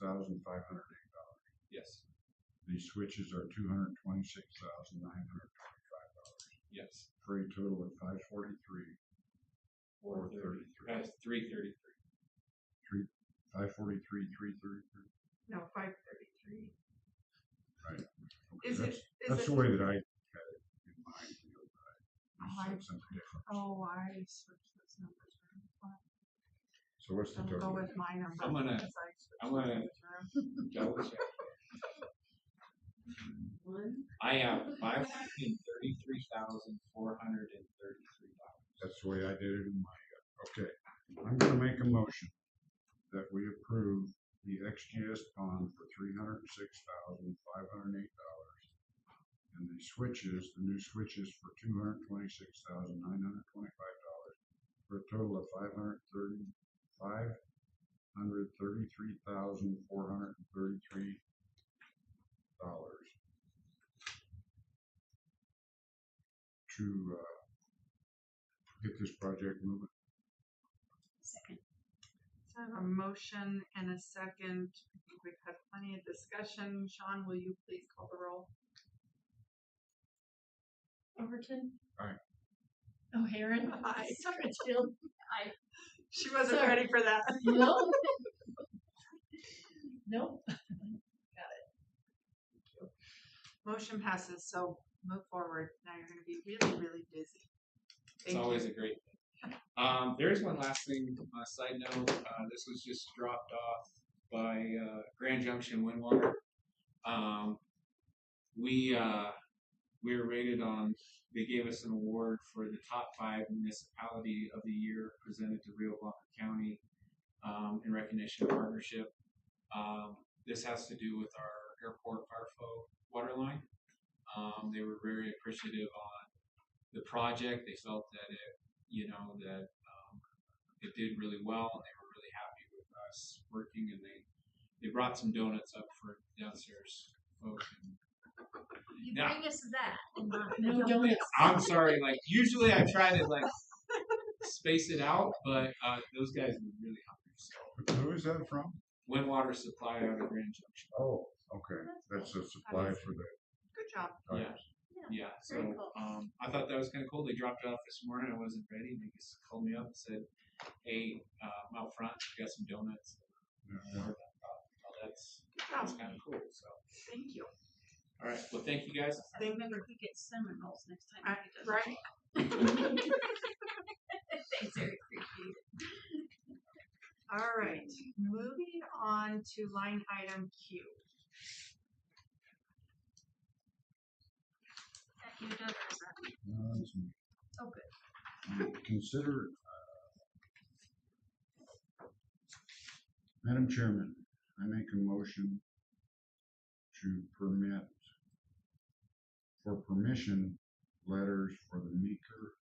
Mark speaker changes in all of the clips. Speaker 1: thousand five hundred eight dollars.
Speaker 2: Yes,
Speaker 1: The switches are two hundred twenty-six thousand nine hundred twenty-five dollars,
Speaker 2: yes.
Speaker 1: for a total of five forty-three, four thirty-three.
Speaker 2: That's three thirty-three.
Speaker 1: Five forty-three, three thirty-three.
Speaker 3: No, five thirty-three.
Speaker 1: Right.
Speaker 3: Is
Speaker 1: That's-
Speaker 3: it, is
Speaker 1: That's
Speaker 3: it?
Speaker 1: the way that I had it in mind, you know, but I you
Speaker 3: Oh,
Speaker 1: said
Speaker 3: I-
Speaker 1: something different.
Speaker 3: Oh, I switched those numbers around. Fine.
Speaker 1: So what's the
Speaker 3: I'll go
Speaker 1: total?
Speaker 3: with my number.
Speaker 2: I'm gonna-
Speaker 3: because I switched
Speaker 2: I'm gonna-
Speaker 3: numbers around.
Speaker 2: Double check.
Speaker 3: One,
Speaker 2: I have five hundred and thirty-three thousand, four hundred and thirty-three dollars.
Speaker 1: That's the way I did it in my, okay. I'm gonna make a motion that we approve the XGS bond for three hundred and six thousand, five hundred and eight dollars. And the switches, the new switches for two hundred and twenty-six thousand, nine hundred and twenty-five dollars, for a total of five hundred and thirty, five hundred thirty-three thousand, four hundred and thirty-three dollars. To, uh, get this project moving.
Speaker 3: so I have a motion and a second. I think we've had plenty of discussion. Sean, will you please call the roll?
Speaker 4: Overton.
Speaker 1: Aye.
Speaker 4: O'Haron.
Speaker 3: Aye.
Speaker 4: Litchfield.
Speaker 3: She wasn't
Speaker 4: Sorry.
Speaker 3: ready for that.
Speaker 4: No. Nope.
Speaker 3: Motion passes, so move forward. Now you're gonna be really, really busy.
Speaker 2: It's
Speaker 3: Thank you.
Speaker 2: always a great thing. Um, there is one last thing, uh, side note, uh, this was just dropped off by, uh, Grand Junction Windwater. Um, we, uh, we were rated on, they gave us an award for the top five municipality of the year presented to Rio Blanco County, um, in recognition of partnership. Um, this has to do with our airport Parfo water line. Um, they were very appreciative on the project. They felt that it, you know, that um, it did really well, and they were really happy with us working. And they they brought some donuts up for downstairs folks. And
Speaker 5: You
Speaker 2: Now-
Speaker 5: bring us that.
Speaker 4: No donuts.
Speaker 2: I'm sorry, like usually I try to like space it out, but uh, those guys were really hungry. So
Speaker 1: Who is that from?
Speaker 2: Windwater Supply out of Grand Junction.
Speaker 1: Oh, okay, that's a supply for the
Speaker 3: Good job.
Speaker 2: Yeah.
Speaker 1: tires.
Speaker 2: Yeah, so
Speaker 5: Very cool.
Speaker 2: um, I thought that was kind of cool. They dropped it off this morning. I wasn't ready. They just called me up and said, "Hey, uh, I'm out front. We got some donuts."
Speaker 1: Yeah.
Speaker 2: Well, that's,
Speaker 3: Good job.
Speaker 2: that's kind of cool, so.
Speaker 3: Thank you.
Speaker 2: All right, well, thank you guys.
Speaker 4: Remember, if we get cinnamon rolls next
Speaker 3: I-
Speaker 4: time. if he doesn't
Speaker 3: Right?
Speaker 5: Thanks, Eric. Appreciate it.
Speaker 3: All right, moving on to line item Q.
Speaker 5: That you know there's a-
Speaker 1: No, that's me.
Speaker 5: Oh, good.
Speaker 1: Um, Consider, uh, Madam Chairman, I make a motion to permit, for permission letters for the Meeker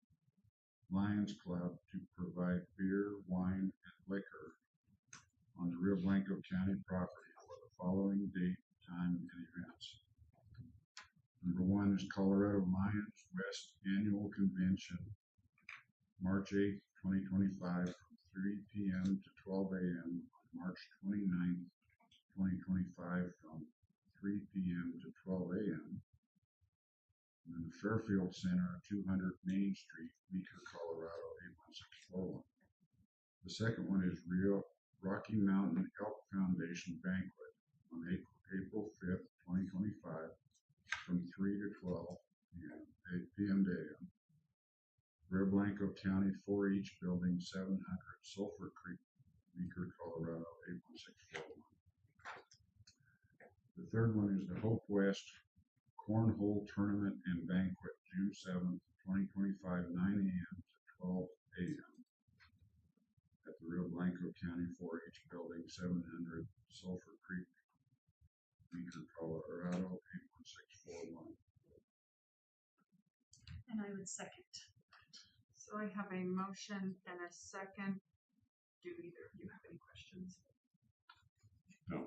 Speaker 1: Lions Club to provide beer, wine, and liquor on the Rio Blanco County property for the following date, time, and events. Number one is Colorado Lions West Annual Convention, March eighth, twenty twenty-five, from three P M to twelve A M, on March 29th, twenty-five, from three P M to twelve A M. And then the Fairfield Center, two hundred Main Street, Meeker, Colorado, eight one six four one. The second one is Rio Rocky Mountain Elk Foundation Banquet on April, April fifth, twenty twenty-five, from three to twelve, p.m. eight PM to AM. Rio Blanco County four H Building seven hundred Sulphur Creek, Meeker, Colorado, eight one six four one. The third one is the Hope West Cornhole Tournament and Banquet, June seventh, twenty twenty-five, nine AM to twelve AM. At the Rio Blanco County four H Building seven hundred Sulphur Creek, Meeker, Colorado, eight one six four one.
Speaker 4: And I would second.
Speaker 3: So I have a motion and a second. Do either of you have any questions?
Speaker 1: No.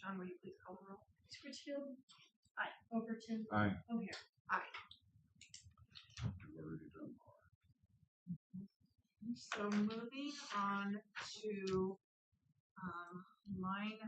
Speaker 3: John, will you please call the roll?
Speaker 4: Litchfield. Aye. Overton.
Speaker 1: Aye.
Speaker 4: O'Haron.
Speaker 1: We've already done all that.
Speaker 3: So moving on to, um, line